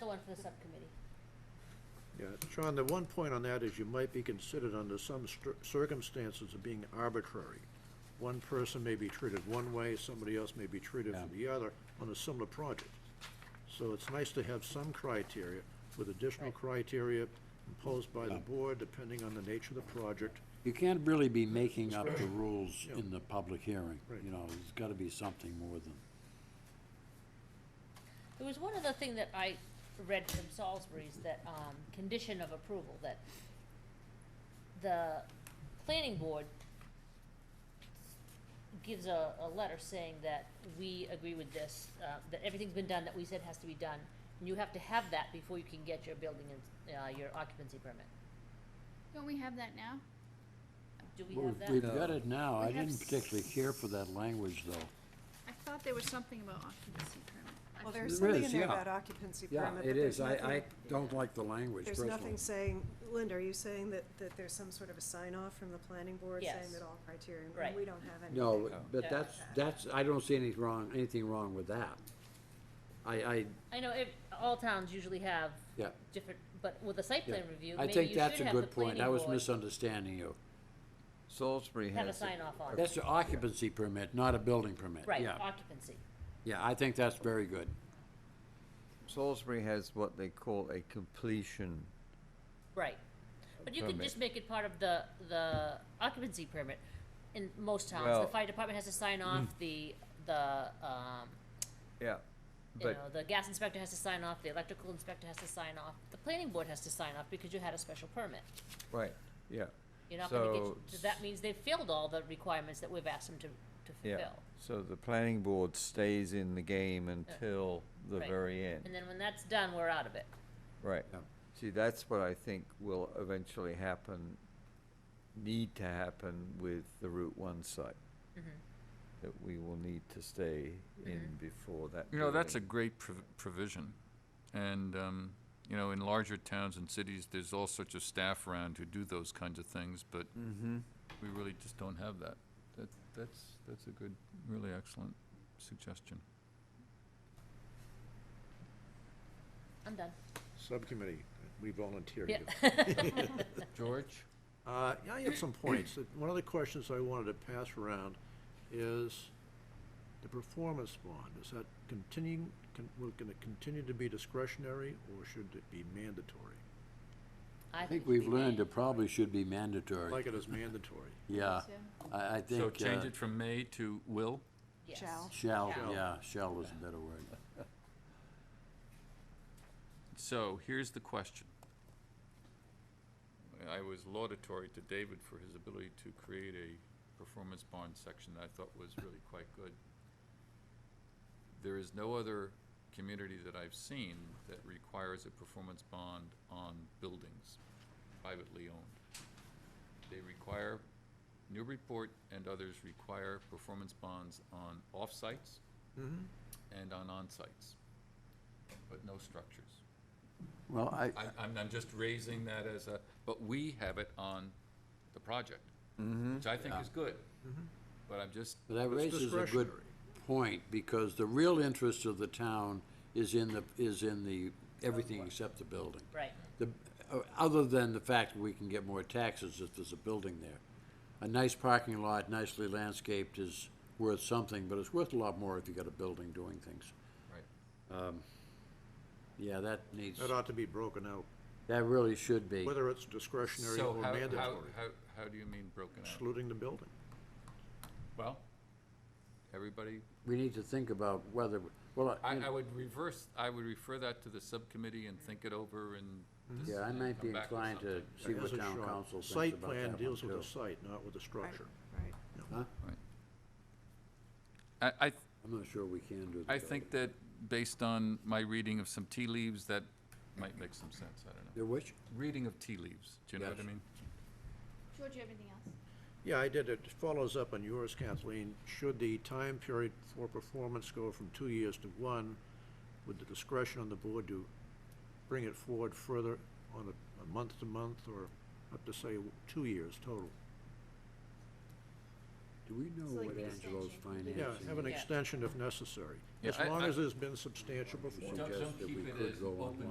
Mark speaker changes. Speaker 1: the one for the subcommittee.
Speaker 2: Yeah, Sean, the one point on that is you might be considered under some str- circumstances of being arbitrary. One person may be treated one way, somebody else may be treated
Speaker 3: Yeah.
Speaker 2: for the other on a similar project. So it's nice to have some criteria with additional criteria imposed by the
Speaker 3: Yeah.
Speaker 2: board depending on the nature of the project.
Speaker 3: You can't really be making up the rules in the public hearing,
Speaker 2: Right.
Speaker 3: you know, there's gotta be something more than,
Speaker 1: There was one other thing that I read from Salisbury's, that, um, condition of approval, that the planning board gives a, a letter saying that we agree with this, uh, that everything's been done that we said has to be done, and you have to have that before you can get your building and, uh, your occupancy permit.
Speaker 4: Don't we have that now?
Speaker 1: Do we
Speaker 3: Well,
Speaker 1: have
Speaker 3: we've-
Speaker 1: that?
Speaker 3: we've got it now, I
Speaker 4: We have
Speaker 3: didn't particularly care for that language, though.
Speaker 4: I thought there was something about occupancy permit.
Speaker 5: Well, there's
Speaker 3: There
Speaker 5: something
Speaker 3: is,
Speaker 5: in there
Speaker 3: yeah.
Speaker 5: about occupancy
Speaker 3: Yeah,
Speaker 5: permit, but
Speaker 3: it
Speaker 5: there's
Speaker 3: is, I, I
Speaker 5: nothing,
Speaker 3: don't like the language
Speaker 5: there's
Speaker 3: personally.
Speaker 5: nothing saying, Linda, are you saying that, that there's some sort of a sign-off from the planning board
Speaker 1: Yes.
Speaker 5: saying that all criteria, and
Speaker 1: Right.
Speaker 5: we don't have any.
Speaker 3: No, but
Speaker 1: Yeah.
Speaker 3: that's, that's, I don't see anything wrong, anything wrong with that. I, I,
Speaker 1: I know, it, all towns usually have
Speaker 3: yeah,
Speaker 1: different, but with a site
Speaker 3: yeah.
Speaker 1: plan review,
Speaker 3: I
Speaker 1: maybe you
Speaker 3: think
Speaker 1: should
Speaker 3: that's a
Speaker 1: have the
Speaker 3: good point,
Speaker 1: planning
Speaker 3: I was
Speaker 1: board
Speaker 3: misunderstanding you.
Speaker 6: Salisbury has.
Speaker 1: have a
Speaker 6: it.
Speaker 1: sign off on it,
Speaker 3: That's an occupancy permit, not a building permit,
Speaker 1: right,
Speaker 3: yeah,
Speaker 1: occupancy.
Speaker 3: yeah, I think that's very good.
Speaker 6: Salisbury has what they call a completion.
Speaker 1: Right, but you can
Speaker 6: Permit.
Speaker 1: just make it part of the, the occupancy permit. In most towns, the
Speaker 6: Well- mm.
Speaker 1: fire department has to sign off, the, the, um,
Speaker 6: Yeah.
Speaker 1: you know,
Speaker 6: But,
Speaker 1: the gas inspector has to sign off, the electrical inspector has to sign off, the planning board has to sign off because you had a special permit.
Speaker 6: right, yeah,
Speaker 1: You're not gonna
Speaker 6: So-
Speaker 1: get, so that means they've filled all the requirements that we've asked them to, to
Speaker 6: yeah.
Speaker 1: fulfill.
Speaker 6: So the planning board stays in the game until the
Speaker 1: right.
Speaker 6: very end,
Speaker 1: And then when that's done, we're out of it.
Speaker 6: right.
Speaker 3: Yeah.
Speaker 6: See, that's what I think will eventually happen, need to happen with the Route One site.
Speaker 1: Mm-hmm.
Speaker 6: That we will need to stay in before that.
Speaker 7: You know, that's a
Speaker 6: building-
Speaker 7: great prov- provision. And, um, you know, in larger towns and cities, there's all sorts of staff around who do those kinds of things, but
Speaker 3: Mm-hmm.
Speaker 7: we really just don't have that. That, that's, that's a good, really excellent suggestion.
Speaker 1: I'm done.
Speaker 2: Subcommittee, we volunteer
Speaker 1: Yeah.
Speaker 2: you.
Speaker 3: George?
Speaker 2: Uh, yeah, I had some points. Uh, One of the questions I wanted to pass around is the performance bond, is that continuing, can, will, gonna continue to be discretionary, or should it be mandatory?
Speaker 3: I think we've learned it probably should be mandatory,
Speaker 2: Like it is mandatory.
Speaker 3: yeah,
Speaker 4: So-
Speaker 3: I, I think.
Speaker 7: So
Speaker 3: uh,
Speaker 7: change it from may to will?
Speaker 1: Yes.
Speaker 5: Shall.
Speaker 3: Shall,
Speaker 1: Shall.
Speaker 3: yeah, shall is a better word.
Speaker 7: So here's the question. I was laudatory to David for his ability to create a performance bond section that I thought was really quite good. There is no other community that I've seen that requires a performance bond on buildings privately owned. They require, Newburyport and others require performance bonds on off-sites and on on-sites, but no structures.
Speaker 3: Well, I,
Speaker 7: I, I'm, I'm just raising that as a, but we have it on the project, which I think is good.
Speaker 2: Mm-hmm.
Speaker 7: But I'm just,
Speaker 3: that
Speaker 2: It's
Speaker 3: raises a good
Speaker 2: discretionary.
Speaker 3: point, because the real interest of the town is in the, is in the, everything except the building.
Speaker 1: Right.
Speaker 3: The, uh, other than the fact that we can get more taxes if there's a building there. A nice parking lot, nicely landscaped is worth something, but it's worth a lot more if you got a building doing things.
Speaker 7: right,
Speaker 3: Yeah, that needs,
Speaker 2: That ought to be broken out,
Speaker 3: that really should be.
Speaker 2: whether it's discretionary
Speaker 7: so
Speaker 2: or
Speaker 7: how, how,
Speaker 2: mandatory,
Speaker 7: how, how do you mean broken out?
Speaker 2: excluding the building.
Speaker 7: Well, everybody,
Speaker 3: We need to think about whether, well,
Speaker 7: I,
Speaker 3: you know,
Speaker 7: I would reverse, I would refer that to the subcommittee and think it over and.
Speaker 3: Hmm? yeah, I might be
Speaker 7: come back with
Speaker 3: inclined to
Speaker 7: something.
Speaker 3: see
Speaker 2: That
Speaker 3: what
Speaker 2: is a
Speaker 3: town
Speaker 2: shot.
Speaker 3: council thinks about that
Speaker 2: Site plan
Speaker 3: one,
Speaker 2: deals with
Speaker 3: too.
Speaker 2: the site, not with the structure.
Speaker 5: Right.
Speaker 3: Huh?
Speaker 2: Mm-hmm.
Speaker 7: I, I, th-
Speaker 3: I'm not sure we can do that.
Speaker 7: I think that based on my reading of some tea leaves, that might make some sense, I don't know.
Speaker 3: The which?
Speaker 7: Reading of tea leaves, do you know what I
Speaker 3: Yes.
Speaker 7: mean?
Speaker 4: George, you have anything else?
Speaker 2: Yeah, I did. It follows up on yours, Kathleen. Should the time period for performance go from two years to one, with the discretion on the board to bring it forward further on a, a month to month or up to say two years total?
Speaker 3: Do we know
Speaker 4: like
Speaker 3: what
Speaker 4: an
Speaker 3: Angelo's
Speaker 4: extension.
Speaker 3: financing?
Speaker 2: Yeah, have an
Speaker 1: Yeah.
Speaker 2: extension if necessary,
Speaker 7: Yeah,
Speaker 2: as
Speaker 7: I-
Speaker 2: long
Speaker 7: I-
Speaker 2: as there's been substantial performance.
Speaker 7: Don't-
Speaker 3: suggests
Speaker 7: don't
Speaker 3: that we
Speaker 7: keep it
Speaker 3: could
Speaker 7: as
Speaker 3: go
Speaker 7: open
Speaker 3: online.